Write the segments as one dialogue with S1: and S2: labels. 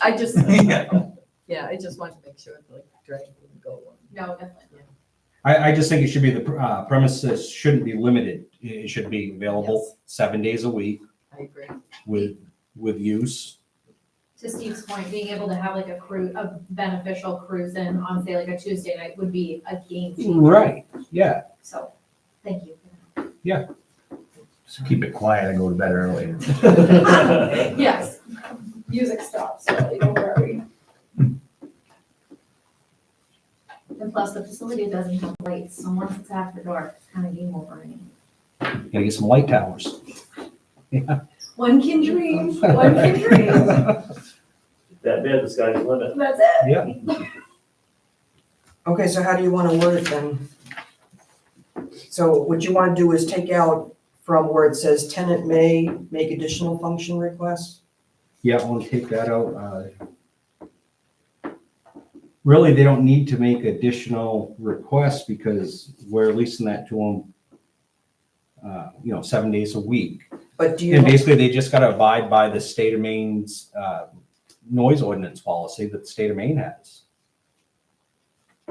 S1: I just,
S2: Yeah.
S1: yeah, I just wanted to make sure that like drain wouldn't go on.
S3: No, definitely.
S2: I, I just think it should be the pr- uh, premises shouldn't be limited. It it should be available seven days a week
S1: I agree.
S2: with, with use.
S3: To Steve's point, being able to have like a cruise, a beneficial cruise in on say like a Tuesday night would be a game changer.
S2: Right, yeah.
S3: So, thank you.
S4: Just keep it quiet and go to bed early.
S3: Yes, music stops, so don't worry. And plus, the facility doesn't have lights, so once it's after dark, it's kind of game over.
S2: Gotta get some light towers.
S3: One can dream, one can dream.
S5: That bid, the sky's the limit.
S3: That's it.
S6: Okay, so how do you wanna word it then? So what you wanna do is take out from where it says tenant may make additional function requests?
S2: Yeah, I want to take that out. uh, Really, they don't need to make additional requests because we're leasing that to them, uh, you know, seven days a week.
S6: But do
S2: And
S6: you,
S2: basically, they just gotta abide by the state of Maine's, uh, noise ordinance policy that the state of Maine has.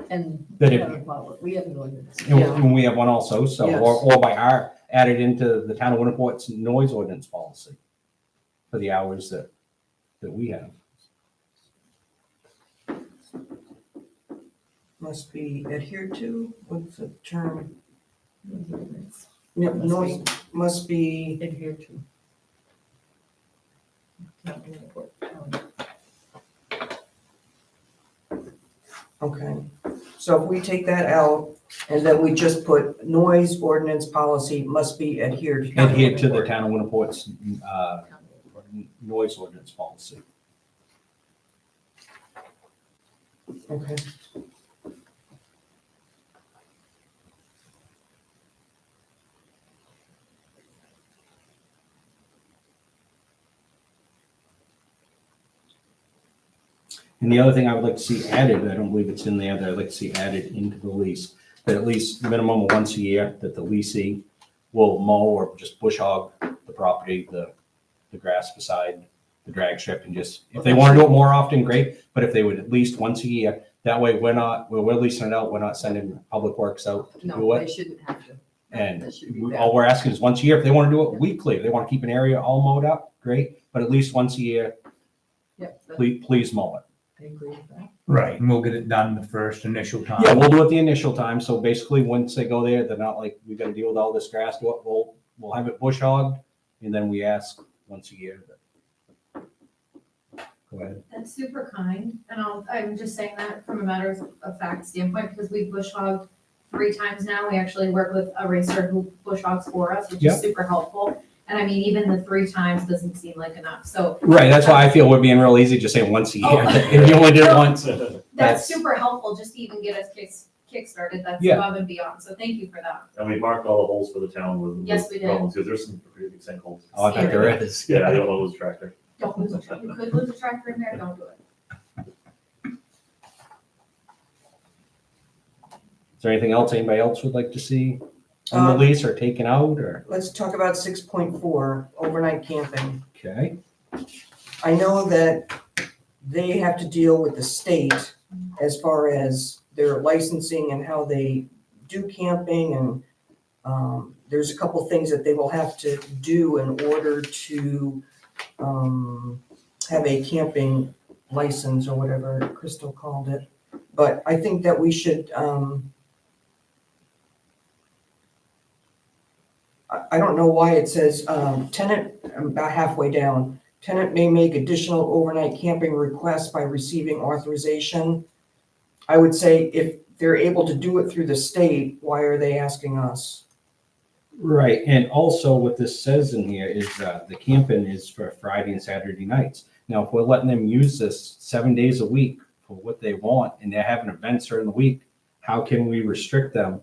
S1: And
S2: That
S1: we
S2: if-
S1: haven't followed- we haven't ordinance.
S2: And we- and we have one also, so, or,
S6: Yes.
S2: or by our, added into the town of Winterport's noise ordinance policy for the hours that, that we have.
S6: must be adhered to, what's the term?
S1: Ordinance.
S6: No,
S1: Must
S6: Noise, must be,
S1: Adhere to. Not in the court. Um,
S6: okay. So if we take that out and then we just put noise ordinance policy must be adhered. to.
S2: Adhere to the town of Winterport's, uh, noise ordinance policy.
S6: Okay.
S2: And the other thing I would like to see added, I don't believe it's in there, that I'd like to see added into the lease, that at least minimum of once a year, that the leasing will mow or just bush hog the property, the, the grass beside the drag strip and just, if they want to do it more often, great, but if they would at least once a year, that way we're not, we're, we're leasing it out, we're not sending public works out to do
S1: No,
S2: it.
S1: they shouldn't have to.
S2: And
S1: That should be
S2: we-
S1: bad.
S2: all we're asking is once a year, if they want to do it weekly, if they want to keep an area all mowed up, great, but at least once a year,
S1: Yep, that-
S2: please, please mow it.
S1: I agree with that.
S4: Right, and we'll get it done the first initial time.
S2: Yeah, Uh, we'll do it the initial time, so basically, once they go there, they're not like, we gotta deal with all this grass, do it, we'll, we'll have it bush hogged, and then we ask once a year. that- Go ahead.
S3: That's super kind, and I'll, I'm just saying that from a matter of- of fact standpoint, because we've bush hogged three times now, we actually work with a racer who bush hogs for us, which
S2: Yeah.
S3: is super helpful. And I mean, even the three times doesn't seem like enough, so
S2: Right, that's why I feel we're being real easy, just saying once a year,
S3: Oh.
S2: if you only did it once,
S5: And
S3: that's
S2: That's-
S3: super helpful, just to even get us kick, kickstarted, that's
S2: Yeah.
S3: above and beyond, so thank you for that.
S5: we marked all the holes for the town with.
S3: Yes, we did.
S5: Because there's some pretty big sinkholes.
S2: oh, I bet there is.
S5: Yeah, I don't know those tractor.
S3: Don't lose a tractor, you could lose a tractor in there, don't do it.
S2: Is there anything else anybody else would like to see in the
S6: Um,
S2: lease or taken out, or,
S6: Let's talk about six point four, overnight camping.
S2: okay?
S6: I know that they have to deal with the state as far as their licensing and how they do camping and um, there's a couple things that they will have to do in order to um, have a camping license or whatever Crystal called it. But I think that we should, um, I, I don't know why it says, um, tenant, I'm about halfway down. Tenant may make additional overnight camping requests by receiving authorization. I would say if they're able to do it through the state, why are they asking us?
S2: Right, and also what this says in here is uh, the camping is for Friday and Saturday nights. Now, if we're letting them use this seven days a week for what they want, and they're having events during the week, how can we restrict them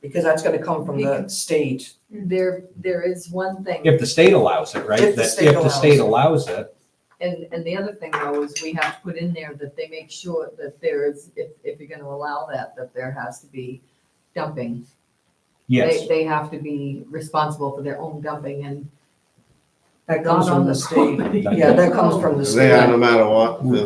S6: Because that's gonna come from the state.
S1: There, there is one thing.
S2: if the state allows it, right?
S6: If the
S2: That-
S6: state
S2: If the state allows it,
S1: And, and the other thing though is we have to put in there that they make sure that there is, if, if you're gonna allow that, that there has to be dumping. They-
S2: yes,
S1: They have to be responsible for their own dumping and That
S7: Not
S1: comes from
S7: on
S1: the
S7: the
S1: state.
S7: property.
S1: Yeah, that comes from the state.
S6: They are, no matter what, the